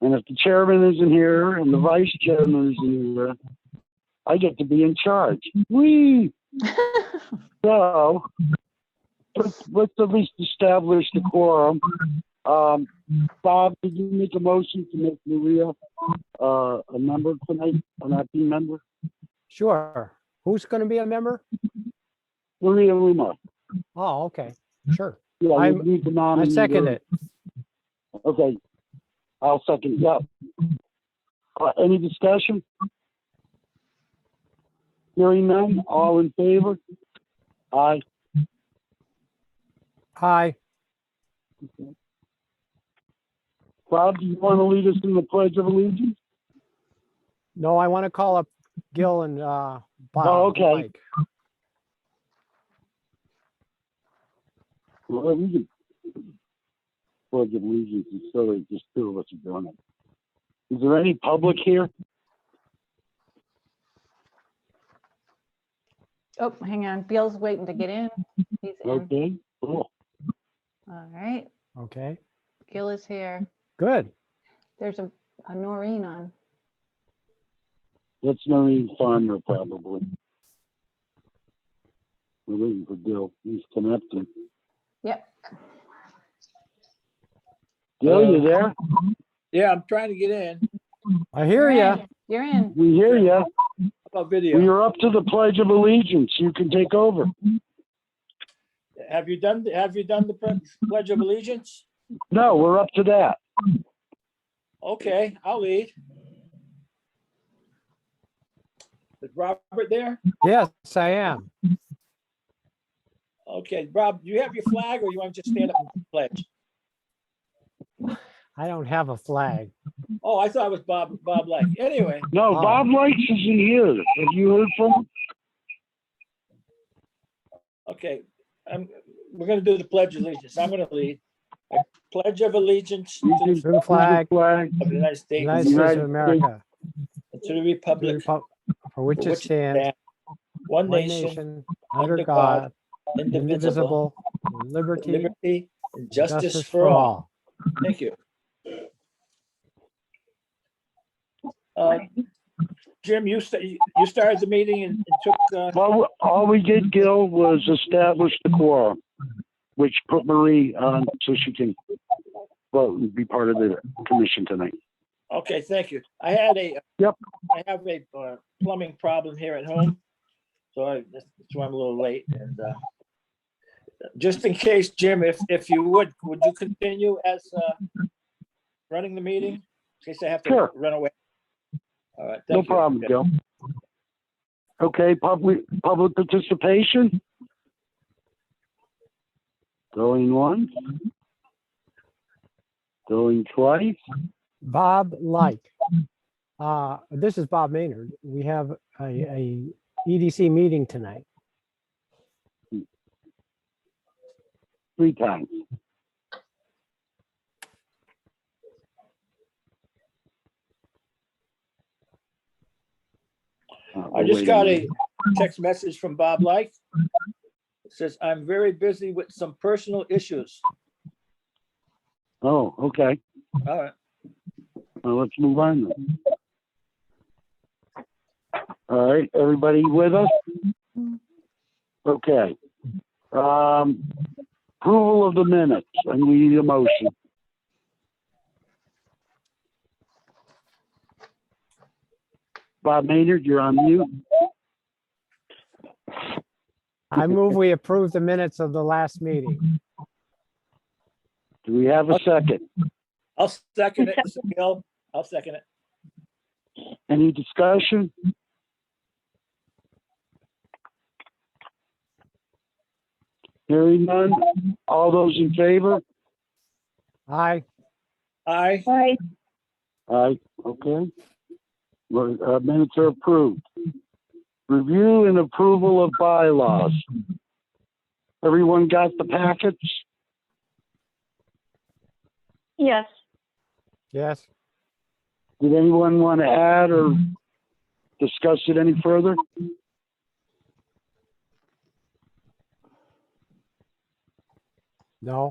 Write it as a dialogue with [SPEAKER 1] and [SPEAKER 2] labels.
[SPEAKER 1] And if the chairman isn't here and the vice chairman isn't here, I get to be in charge. Whee! So, let's, let's at least establish the quorum. Um, Bob, did you make a motion to make Maria, uh, a member tonight, an acting member?
[SPEAKER 2] Sure. Who's going to be a member?
[SPEAKER 1] Maria Luma.
[SPEAKER 2] Oh, okay, sure.
[SPEAKER 1] Yeah, we
[SPEAKER 2] I'm-
[SPEAKER 1] need to
[SPEAKER 2] I
[SPEAKER 1] nominate
[SPEAKER 2] second
[SPEAKER 1] her.
[SPEAKER 2] it.
[SPEAKER 1] Okay. I'll second, yeah. Uh, any discussion? Hearing none, all in favor? Aye.
[SPEAKER 2] Hi.
[SPEAKER 1] Bob, do you want to lead us in the Pledge of Allegiance?
[SPEAKER 2] No, I want to call up Gil and uh, Bob. and
[SPEAKER 1] okay.
[SPEAKER 2] Mike.
[SPEAKER 1] Well, we can. Pledge of Allegiance is silly, just two of us are doing it. Is there any public here?
[SPEAKER 3] Oh, hang on. Bill's waiting to get in. He's in.
[SPEAKER 1] Okay, cool.
[SPEAKER 3] All right.
[SPEAKER 2] Okay,
[SPEAKER 3] Gil is here.
[SPEAKER 2] good.
[SPEAKER 3] There's a, a Noreen on.
[SPEAKER 1] That's Noreen Farmer probably. We're waiting for Bill, he's connecting.
[SPEAKER 3] Yep.
[SPEAKER 1] Bill, you there?
[SPEAKER 4] Yeah, I'm trying to get in.
[SPEAKER 2] I hear
[SPEAKER 3] You're
[SPEAKER 2] ya.
[SPEAKER 3] in. You're in.
[SPEAKER 1] We hear you.
[SPEAKER 4] How about video?
[SPEAKER 1] We're up to the Pledge of Allegiance. You can take over.
[SPEAKER 4] Have you done, have you done the pledge- pledge of allegiance?
[SPEAKER 1] No, we're up to that.
[SPEAKER 4] Okay, I'll lead. Is Robert there?
[SPEAKER 2] Yes, I am.
[SPEAKER 4] Okay, Rob, do you have your flag or you want to just stand up and pledge?
[SPEAKER 2] I don't have a flag.
[SPEAKER 4] Oh, I thought it was Bob, Bob Light. Anyway,
[SPEAKER 1] No,
[SPEAKER 2] Oh.
[SPEAKER 1] Bob Likes is in here. Have you heard from him?
[SPEAKER 4] okay, i we're gonna do the pledge of allegiance. I'm gonna lead. I Pledge of allegiance to the
[SPEAKER 2] To the flag,
[SPEAKER 1] Flag.
[SPEAKER 4] of the United States
[SPEAKER 2] United
[SPEAKER 4] and
[SPEAKER 2] States
[SPEAKER 1] United
[SPEAKER 2] of
[SPEAKER 1] States
[SPEAKER 2] America,
[SPEAKER 4] to the
[SPEAKER 2] to the
[SPEAKER 4] republic
[SPEAKER 2] repub- for which
[SPEAKER 4] for
[SPEAKER 2] it
[SPEAKER 4] which it
[SPEAKER 2] stands,
[SPEAKER 4] stands, one
[SPEAKER 2] one
[SPEAKER 4] nation,
[SPEAKER 2] nation, under
[SPEAKER 4] under
[SPEAKER 2] God,
[SPEAKER 4] God, indivisible,
[SPEAKER 2] indivisible, with liberty, and
[SPEAKER 4] liberty, and
[SPEAKER 2] justice for
[SPEAKER 4] all.
[SPEAKER 2] all.
[SPEAKER 4] Thank you. Uh, Jim, you, sta- you started the meeting and and took, uh,
[SPEAKER 1] Well, all we did, Gil, was establish the quorum, which put Marie on so she can vote and be part of the commission tonight.
[SPEAKER 4] okay, thank you. I had a.
[SPEAKER 1] Yep.
[SPEAKER 4] I have a uh, plumbing problem here at home, so I, that's why I'm a little late and uh, just in case, Jim, if, if you would, would you continue as uh, running the meeting? In case I have to
[SPEAKER 1] Sure.
[SPEAKER 4] run away. All right.
[SPEAKER 1] No
[SPEAKER 4] thank you.
[SPEAKER 1] problem, Gil. Okay, public, public participation? Going once? Going twice?
[SPEAKER 2] Bob Light. Uh, This is Bob Maynard. We have a- a EDC meeting tonight.
[SPEAKER 1] three times. Uh,
[SPEAKER 4] I just
[SPEAKER 1] wait
[SPEAKER 4] got a
[SPEAKER 1] minute.
[SPEAKER 4] text message from Bob Light. It says, I'm very busy with some personal issues.
[SPEAKER 1] Oh, okay.
[SPEAKER 4] All right,
[SPEAKER 1] Well, let's move on then. All right, everybody with us? Okay. Um, approval of the minutes, and we need a motion. Bob Maynard, you're on mute.
[SPEAKER 2] I move we approve the minutes of the last meeting.
[SPEAKER 1] Do we have a second?
[SPEAKER 4] I'll second it, Bill. I'll second it.
[SPEAKER 1] Any discussion? Hearing none, all those in favor?
[SPEAKER 2] Aye.
[SPEAKER 4] Aye,
[SPEAKER 5] Aye.
[SPEAKER 1] Aye, okay. Well, uh, Minutes are approved. Review and approval of bylaws. Everyone got the packets?
[SPEAKER 5] Yes.
[SPEAKER 2] Yes.
[SPEAKER 1] Did anyone want to add or discuss it any further?
[SPEAKER 2] No.